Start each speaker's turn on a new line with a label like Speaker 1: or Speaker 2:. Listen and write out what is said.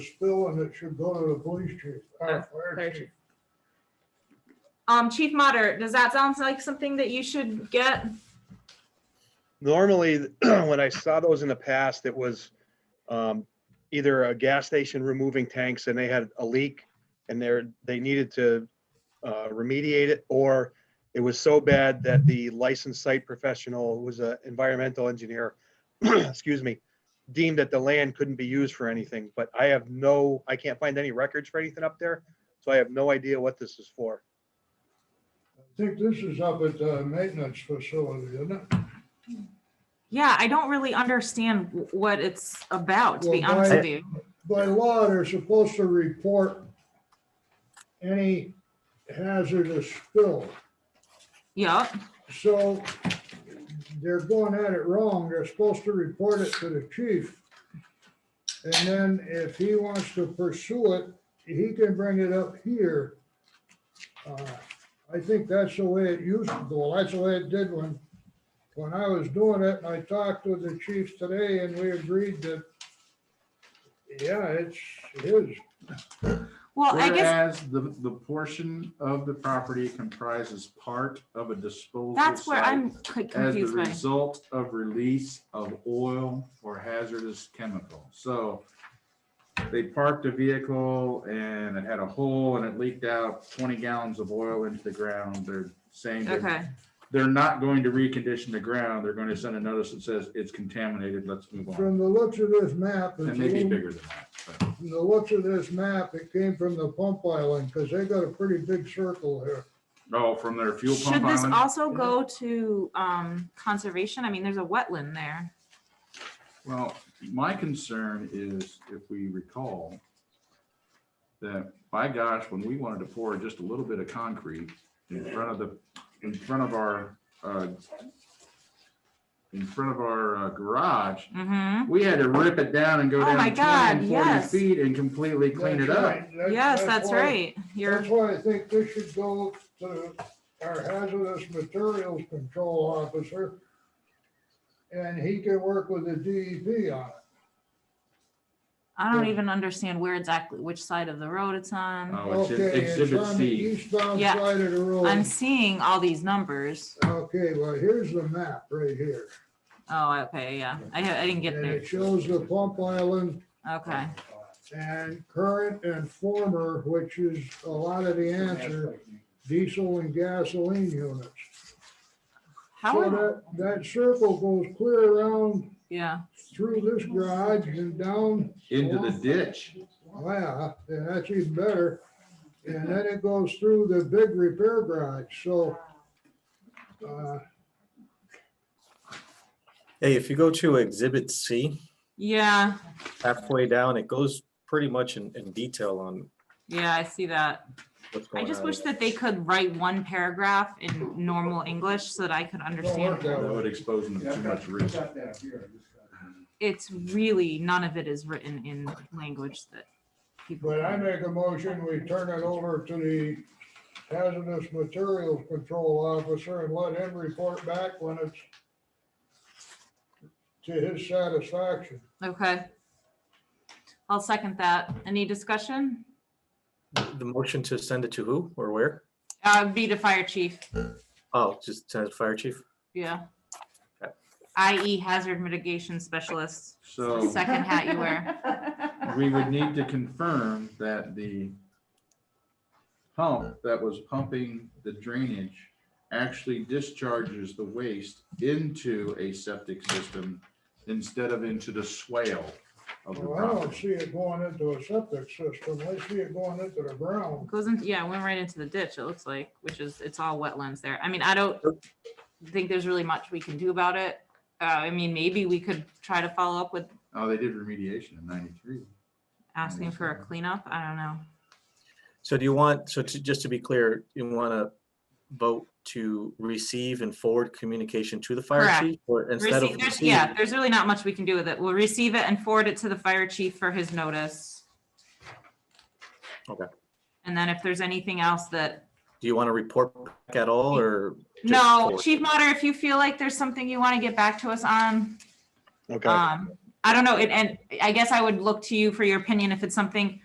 Speaker 1: spelling that should go to the police chief,
Speaker 2: Uh,
Speaker 1: our fire
Speaker 2: fire
Speaker 1: chief.
Speaker 2: chief. Um, Chief Mater, does that sound like something that you should get?
Speaker 3: Normally, when I saw those in the past, it was um, either a gas station removing tanks and they had a leak and they're, they needed to uh, remediate it, or it was so bad that the licensed site professional, who was an environmental engineer, excuse me, deemed that the land couldn't be used for anything, but I have no, I can't find any records for anything up there, so I have no idea what this is for.
Speaker 1: I think this is up at the maintenance facility, isn't it?
Speaker 2: Yeah, I don't really understand w- what it's about, to be
Speaker 1: Well,
Speaker 2: honest
Speaker 1: why-
Speaker 2: with you.
Speaker 1: By law, they're supposed to report any hazardous spill.
Speaker 2: Yep,
Speaker 1: So they're going at it wrong. They're supposed to report it to the chief. And then if he wants to pursue it, he can bring it up here. Uh, I think that's the way it used to go. That's the way it did when, when I was doing it. And I talked with the chief today and we agreed that, yeah, it's his.
Speaker 2: well, I guess,
Speaker 4: Whereas the, the portion of the property comprises part of a disposal
Speaker 2: That's where I'm
Speaker 4: site
Speaker 2: quite
Speaker 4: as the
Speaker 2: confused by.
Speaker 4: result of release of oil or hazardous chemical. So they parked a vehicle and it had a hole and it leaked out twenty gallons of oil into the ground. They're saying they're,
Speaker 2: Okay,
Speaker 4: they're not going to recondition the ground. They're going to send a notice that says it's contaminated. Let's move on.
Speaker 1: From the looks of this map. it's a
Speaker 4: And maybe
Speaker 1: little-
Speaker 4: bigger than that. but-
Speaker 1: From the looks of this map, it came from the pump island, because they got a pretty big circle here.
Speaker 4: Oh, from their fuel pump
Speaker 2: should this
Speaker 4: island?
Speaker 2: also
Speaker 1: Yeah.
Speaker 2: go to, um, conservation? I mean, there's a wetland there.
Speaker 4: Well, my concern is if we recall that by gosh, when we wanted to pour just a little bit of concrete in front of the, in front of our, uh, in front of our uh, garage,
Speaker 2: Mm-hmm,
Speaker 4: we had to rip it down and go
Speaker 2: Oh
Speaker 4: down
Speaker 2: my
Speaker 4: 20 and
Speaker 2: God,
Speaker 4: 40
Speaker 2: yes.
Speaker 4: feet and completely clean it
Speaker 1: That's
Speaker 4: up.
Speaker 1: right. That-
Speaker 2: yes, that's
Speaker 1: why-
Speaker 2: right. You're,
Speaker 1: That's why I think this should go to our hazardous materials control officer. And he can work with the DEP on it.
Speaker 2: I don't
Speaker 1: yeah.
Speaker 2: even understand where exactly, which side of the road it's on.
Speaker 4: Oh, it's in
Speaker 1: Okay, it's
Speaker 4: exhibit
Speaker 1: on the
Speaker 4: C.
Speaker 1: Eastbound
Speaker 2: Yeah.
Speaker 1: side of the
Speaker 2: I'm
Speaker 1: road.
Speaker 2: seeing all these numbers.
Speaker 1: Okay, well, here's the map right here.
Speaker 2: Oh, okay, yeah, I, ha- I didn't get
Speaker 1: And
Speaker 2: there.
Speaker 1: it shows the pump island
Speaker 2: Okay,
Speaker 1: And current and former, which is a lot of the answer, diesel and gasoline units.
Speaker 2: how
Speaker 1: So
Speaker 2: are,
Speaker 1: that, that circle goes clear around
Speaker 2: yeah.
Speaker 1: through this garage and down,
Speaker 4: Into the ditch.
Speaker 1: wow, and that's even better. And then it goes through the big repair garage, so. uh,
Speaker 5: Hey, if you go to Exhibit C,
Speaker 2: Yeah,
Speaker 5: halfway down, it goes pretty much in, in detail on
Speaker 2: yeah, I see that.
Speaker 5: what's going
Speaker 2: I
Speaker 5: on.
Speaker 2: just wish that they could write one paragraph in normal English so that I could understand. it.
Speaker 4: That would expose them to too much risk.
Speaker 2: It's really, none of it is written in language that people.
Speaker 1: But I
Speaker 2: can-
Speaker 1: make a motion, we turn it over to the hazardous materials control officer and let him report back when it's to his satisfaction.
Speaker 2: Okay. I'll second that. Any discussion?
Speaker 5: The motion to send it to who or where?
Speaker 2: Uh, be the fire chief,
Speaker 5: Oh, just to the fire chief?
Speaker 2: yeah.
Speaker 5: Okay.
Speaker 2: IE hazard mitigation specialist,
Speaker 4: So.
Speaker 2: second hat you wear.
Speaker 4: we would need to confirm that the pump that was pumping the drainage actually discharges the waste into a septic system instead of into the swale of the
Speaker 1: Well, I don't
Speaker 4: property.
Speaker 1: see it going into a septic system, I see it going into the ground.
Speaker 2: Goes into, yeah, went right into the ditch, it looks like, which is, it's all wetlands there. I mean, I don't think there's really much we can do about it. Uh, I mean, maybe we could try to follow up with
Speaker 4: Oh, they did remediation in ninety-three.
Speaker 2: asking for a cleanup. I don't know.
Speaker 5: So do you want, so to, just to be clear, you want to vote to receive and forward communication to the fire
Speaker 2: Correct.
Speaker 5: chief? Or instead
Speaker 2: Receive,
Speaker 5: of?
Speaker 2: there's, yeah,
Speaker 5: receive?
Speaker 2: there's really not much we can do with it. We'll receive it and forward it to the fire chief for his notice.
Speaker 5: Okay.
Speaker 2: And then if there's anything else that,
Speaker 5: Do you want to report back at all or? just
Speaker 2: no,
Speaker 5: forward?
Speaker 2: Chief Mater, if you feel like there's something you want to get back to us on,
Speaker 3: Okay,
Speaker 2: um, I don't know, and, and I guess I would look to you for your opinion if it's something